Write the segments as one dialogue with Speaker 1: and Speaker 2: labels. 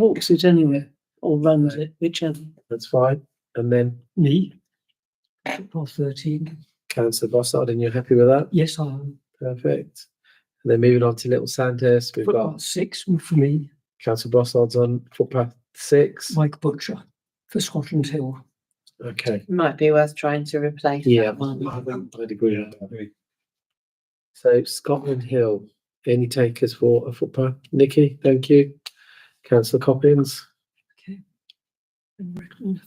Speaker 1: walks it anyway, or runs it, whichever.
Speaker 2: That's fine. And then
Speaker 3: me. Football thirteen.
Speaker 2: Councillor Bossard, and you're happy with that?
Speaker 3: Yes, I am.
Speaker 2: Perfect. And then moving on to Little Sandhurst, we've
Speaker 3: Football
Speaker 2: got
Speaker 3: six for me.
Speaker 2: Councillor Bossard's on footpath six.
Speaker 3: Mike Butcher for Scotland Hill.
Speaker 2: Okay.
Speaker 4: Might be worth trying to replace
Speaker 2: Yeah,
Speaker 4: that one.
Speaker 2: I think I'd agree with that. So Scotland Hill, any takers for a footpath? Nikki, thank you. Councillor Coppins.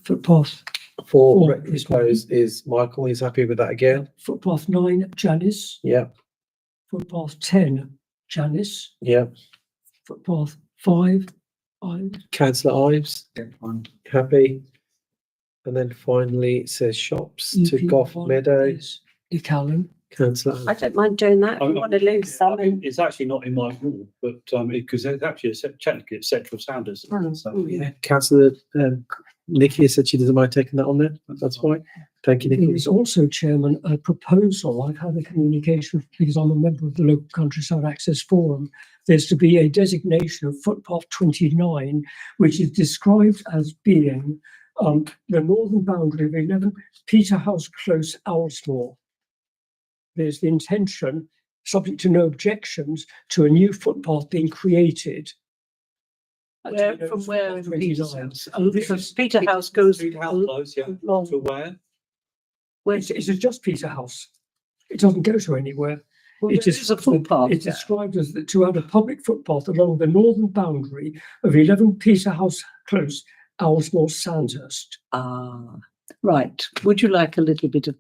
Speaker 3: Footpath,
Speaker 2: For
Speaker 3: Four.
Speaker 2: Reckless Close is Michael, he's happy with that again?
Speaker 3: footpath nine Janice.
Speaker 2: Yeah,
Speaker 3: Footpath ten Janice.
Speaker 2: yeah.
Speaker 3: Footpath five I.
Speaker 2: Councillor Ives, happy? And then finally it says shops to Gough Meadow,
Speaker 3: Ecallan.
Speaker 2: councillor.
Speaker 4: I don't mind doing that.
Speaker 5: I-
Speaker 4: I
Speaker 5: I-
Speaker 4: want to lose some.
Speaker 5: I mean, It's actually not in my rule, but um, because it's actually a se- technically it's central standards.
Speaker 4: Mm.
Speaker 2: Yeah, councillor, um, Nikki said she doesn't mind taking that on there. That's fine. Thank you,
Speaker 3: There
Speaker 2: Nikki.
Speaker 3: is also, Chairman, a proposal, I've had a communication because I'm a member of the local countryside access forum. There's to be a designation of footpath twenty-nine, which is described as being um, the northern boundary of eleven Peterhouse Close, Owlsmore. There's the intention, subject to no objections, to a new footpath being created. at
Speaker 1: Where,
Speaker 3: Peterhouse
Speaker 1: from where in
Speaker 3: 29.
Speaker 1: Peterhouse? Oh,
Speaker 3: This
Speaker 1: because
Speaker 3: is-
Speaker 1: Peterhouse goes
Speaker 5: Street house
Speaker 1: al-
Speaker 5: close, yeah.
Speaker 1: along,
Speaker 5: To where?
Speaker 1: where's,
Speaker 3: It's, it's just Peterhouse. It doesn't go to anywhere.
Speaker 1: well,
Speaker 3: it
Speaker 1: there
Speaker 3: is-
Speaker 1: is a footpath
Speaker 3: It's
Speaker 1: there.
Speaker 3: described as the, to add a public footpath along the northern boundary of eleven Peterhouse Close, Owlsmore Sandhurst.
Speaker 1: Ah, right. Would you like a little bit of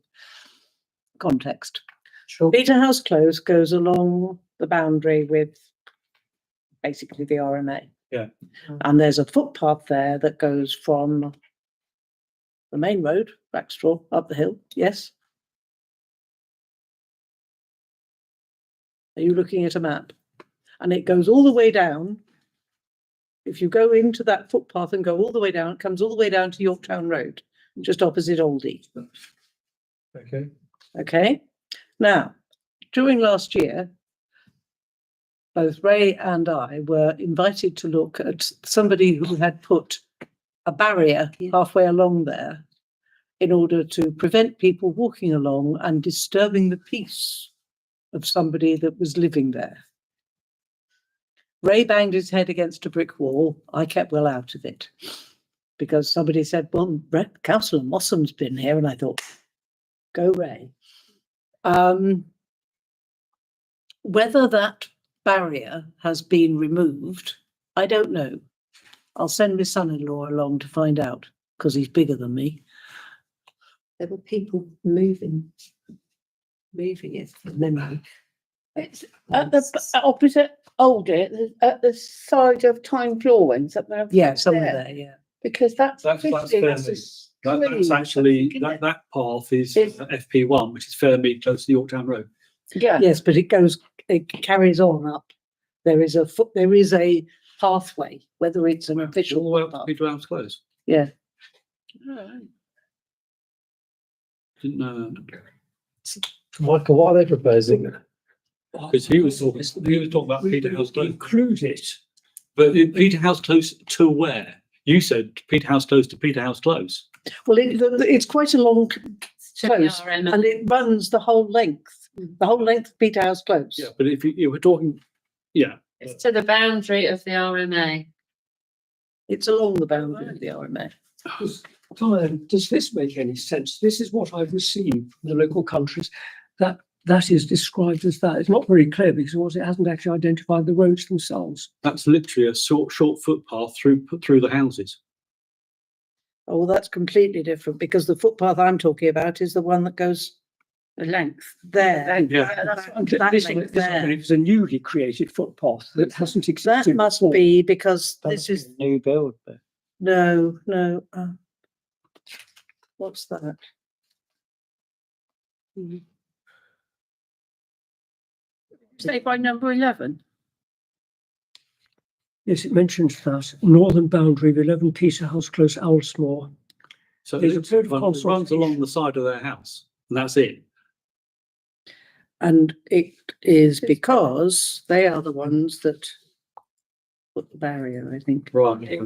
Speaker 1: context?
Speaker 2: Sure.
Speaker 4: Peterhouse Close goes along the boundary with basically the RMA.
Speaker 5: Yeah.
Speaker 4: And there's a footpath there that goes from the main road, Rackstraw, up the hill, yes? Are you looking at a map? And it goes all the way down. If you go into that footpath and go all the way down, it comes all the way down to Yorktown Road, just opposite Aldi.
Speaker 2: Okay.
Speaker 4: Okay, now, during last year, both Ray and I were invited to look at somebody who had put a barrier halfway along there in order to prevent people walking along and disturbing the peace of somebody that was living there. Ray banged his head against a brick wall. I kept well out of it because somebody said, well, Re- Councillor Mossam's been here. And I thought, go Ray. Um, whether that barrier has been removed, I don't know. I'll send my son-in-law along to find out because he's bigger than me.
Speaker 6: there were people moving.
Speaker 4: Moving it from memory.
Speaker 6: It's at the b- opposite Aldi, at the- at the side of Time Florence, up there.
Speaker 4: Yeah, somewhere there. Yeah.
Speaker 6: Because that's.
Speaker 5: That's- that's
Speaker 6: fiddly, that's a
Speaker 5: Fairley. That, that's
Speaker 6: scream,
Speaker 5: actually,
Speaker 6: isn't
Speaker 5: that,
Speaker 6: it?
Speaker 5: that path is
Speaker 6: It's-
Speaker 5: FP one, which is Fairmead, close to Yorktown Road.
Speaker 6: Yeah,
Speaker 4: Yes, but it goes. It carries on up. There is a foot. There is a pathway. Whether it's an
Speaker 5: All the way
Speaker 4: official.
Speaker 5: up to
Speaker 4: path.
Speaker 5: Peterhouse Close.
Speaker 4: Yeah.
Speaker 5: Didn't know.
Speaker 2: Michael, what are they proposing?
Speaker 5: Because he was talking, he was talking about
Speaker 3: We
Speaker 5: Peterhouse
Speaker 3: would
Speaker 5: Close.
Speaker 3: include it.
Speaker 5: But it- Peterhouse Close to where? You said Peterhouse Close to Peterhouse Close.
Speaker 4: Well, it, the- the- it's quite a long close, and it runs the whole length. The whole length of Peterhouse Close.
Speaker 5: But if you, you were talking, yeah,
Speaker 7: It's to the boundary of the RMA.
Speaker 4: It's along the boundary of the RMA.
Speaker 3: Diane, does this make any sense? This is what I've received from the local countries, that, that is described as that. It's not very clear because of course it hasn't actually identified the roads themselves.
Speaker 5: that's literally a short, short footpath through, through the houses.
Speaker 4: Oh, well, that's completely different because the footpath I'm talking about is the one that goes
Speaker 6: the length.
Speaker 4: there.
Speaker 6: Length,
Speaker 5: Yeah.
Speaker 6: that- that's what I'm
Speaker 3: Th-
Speaker 4: That
Speaker 3: This,
Speaker 4: makes
Speaker 3: one- this one
Speaker 4: sense.
Speaker 3: is a newly created footpath that hasn't
Speaker 4: That
Speaker 3: existed.
Speaker 4: must
Speaker 3: before.
Speaker 4: be because
Speaker 2: That
Speaker 4: this
Speaker 2: must be
Speaker 4: is,
Speaker 2: a New build, but
Speaker 4: no, no. uh, What's that?
Speaker 6: Say by number eleven.
Speaker 3: Yes, it mentions that, northern boundary of eleven Peterhouse Close, Owlsmore.
Speaker 5: So
Speaker 3: There's
Speaker 5: it
Speaker 3: a period of
Speaker 5: runs- it runs
Speaker 3: consultation.
Speaker 5: along the side of their house and that's it.
Speaker 4: And it is because they are the ones that
Speaker 8: put the barrier, I think.
Speaker 4: Right.